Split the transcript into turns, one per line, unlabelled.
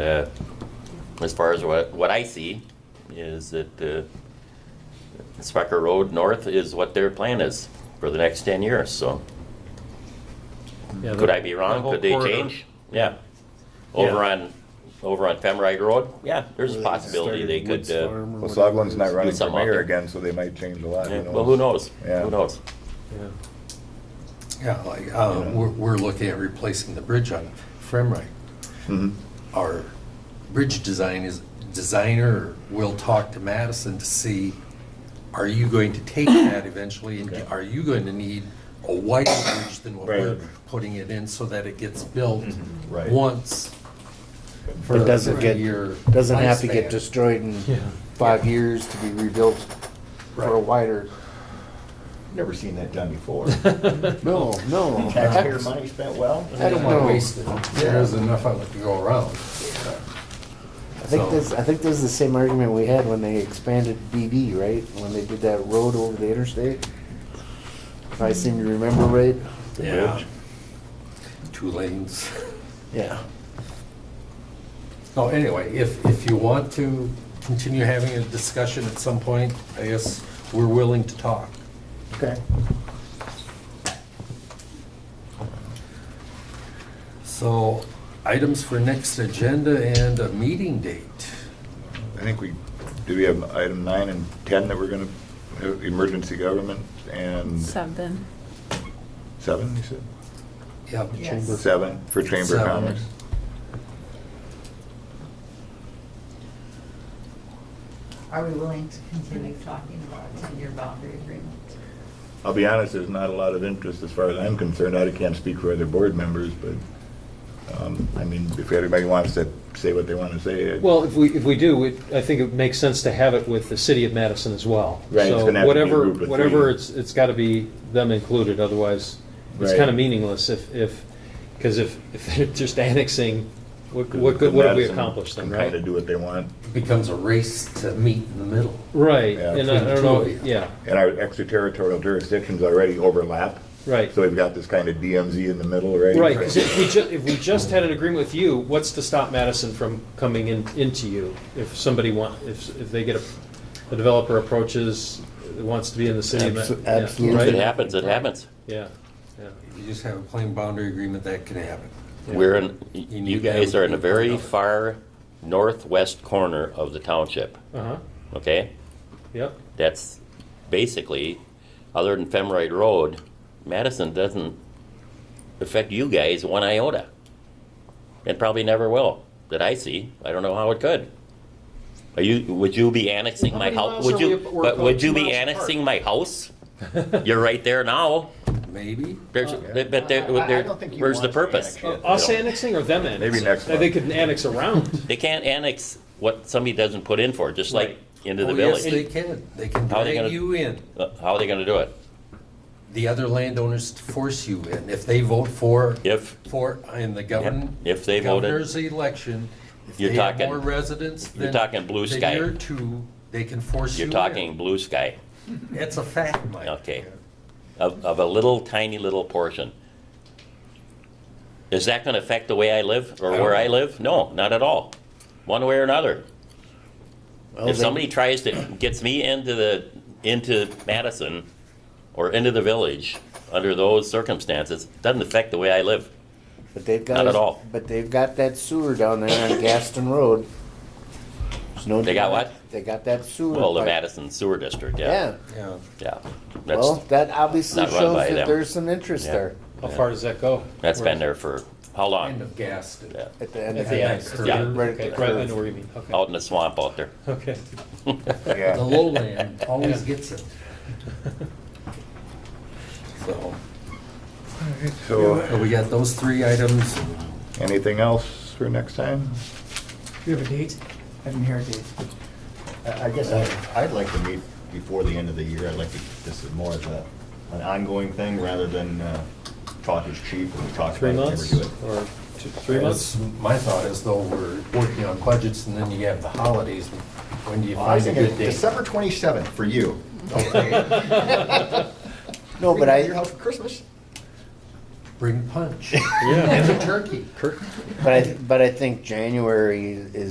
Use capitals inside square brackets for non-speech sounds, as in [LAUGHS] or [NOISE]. Uh, As far as what, what I see is that uh, Specker Road North is what their plan is for the next 10 years, so
Yeah,
could
the-
I be
the
wrong?
whole
Could they
corridor.
change? Yeah. Over on, over on Femrite Road, yeah, there's a possibility they could, uh,
Well,
Well,
Soglin's not running for
something out
mayor
there.
again, so they might change a lot,
yeah,
who
well, who
knows?
knows?
Yeah.
Who knows?
Yeah.
Yeah, like, uh,
Yeah.
we're, we're looking at replacing the bridge on Fremrite.
Mhm.
Our bridge design is, designer will talk to Madison to see, are you going to take that eventually? And
Okay.
are you going to need a wider bridge than what we're
Right.
putting it in so that it gets built
Right.
once? for-
It doesn't
for
get,
your
doesn't have to
lifespan.
get destroyed in
Yeah.
five years to be rebuilt for a
Right.
wider.
Never seen that done before.
No, no.
Taxpayer money spent well?
I don't know. I
Wasted. There is enough of it to go around.
think this, I think this is the same argument we had when they expanded BB, right? When they did that road over the interstate. If I seem to remember right.
Yeah. Two lanes.
Yeah.
Oh, anyway, if, if you want to continue having a discussion at some point, I guess we're willing to talk.
Okay.
So items for next agenda and a meeting date.
I think we, do we have item nine and 10 that we're going to, emergency government and
Seven.
seven, you said?
Yeah,
Yes.
Seven for Chamber of
Seven.
Commerce.
Are we willing to continue talking about a ten-year boundary agreement?
I'll be honest, there's not a lot of interest as far as I'm concerned. I can't speak for other board members, but, um, I mean, if everybody wants to say what they want to say. it-
Well, if we, if we do, it- I think it makes sense to have it with the city of Madison as well.
Right, it's
So
gonna have to be a
whatever-
group of three.
Whatever, it's, it's got to be them included, otherwise it's
Right.
kind of meaningless if, if, because if, if [LAUGHS] they're just annexing, what, what good- what have we
Madison
accomplished then,
can
right?
Kind of do what they want.
Becomes a race to meet in the middle.
Right,
Yeah.
and I I don't know, yeah,
And our extraterritorial jurisdictions already overlap.
right.
So we've got this kind of DMZ in the middle, right?
Right, because if we ju, if we just had an agreement with you, what's to stop Madison from coming in, into you? If somebody want, if, if they get a, a developer approaches, wants to be in the city. of Ma-
Abso-
yeah,
absolutely.
If it
Right,
happens, it happens.
yeah, yeah.
You just have a plain boundary agreement, that can happen.
We're in, y-
You
you
need to
guys
have
are in a
people
very
know.
far northwest corner of the township,
Uh-huh,
okay?
yep,
That's basically, other than Femroid Road, Madison doesn't affect you guys one iota. It probably never will, that I see. I don't know how it could. Are you, would you be annexing
How
my
many
house?
miles
Would
are
you,
we ap- we're
but
about
would you
two
be
miles apart.
annexing my house? You're right there now.
Maybe? Oh,
There's, but there,
I- I
there-
don't think you
where's the
want to
purpose?
annex
You
it.
Uh, us
know?
annexing or them annexing?
next
Uh, They
month.
could
[LAUGHS]
annex around,
They can't annex what somebody doesn't put in for, just like
Right.
into the
Oh, yes,
village.
they can. They can
How are they
drag
gonna-
you in.
Uh, How are they gonna do it?
The other landowners force you in. If they vote for
If,
For, in the govern.
Yep, if they voted-
Governor's election, if
You're
they have
talking-
more residents than.
you're talking blue
than
sky.
your two, they can force you
you're
in.
talking blue sky.
It's a fact, Mike.
Okay. Of, of a little tiny little portion. Is that gonna affect the way I live or
I don't
where I
know.
live? No, not at all, one way or another.
Well,
If
they-
somebody tries to, gets me into the, into Madison or into the village under those circumstances, doesn't affect the way I live.
But they've got.
Not at all.
But they've got that sewer down there on Gaston Road. There's no
They got
denying-
what?
They got that sewer.
Well, the
pipe.
Madison Sewer District, yeah,
Yeah,
Yeah.
yeah.
well,
That's,
that obviously
not run
shows
by
that
them.
there's some interest
Yeah.
there
how far does that go?
that's been there for, how
End
long?
of Gaston.
Yeah,
at the end
At
of
the
the.
end,
end.
yeah,
Right at
okay,
the
right, I
curve.
know what you mean, okay,
out in the swamp out there.
[LAUGHS] okay.
Yeah.
The lowland always
Yeah.
gets it. So, so
So,
we got those three items.
anything else for next time?
Do you have a date? I didn't hear a date.
I I guess I- I'd like to meet before the end of the year. I'd like to, this is more of a, an ongoing thing rather than uh, talk is cheap and we talk about
Three
it, never
months
do it.
or two, three months?
That's My thought is though, we're working on budgets and then you have the holidays. When do you
Well, I was
find a
thinking
good date?
December 27th for you.
No,
We
but
can be at Your
I,
house for Christmas?
bring punch
Yeah.
and a turkey.
But I, but I think January is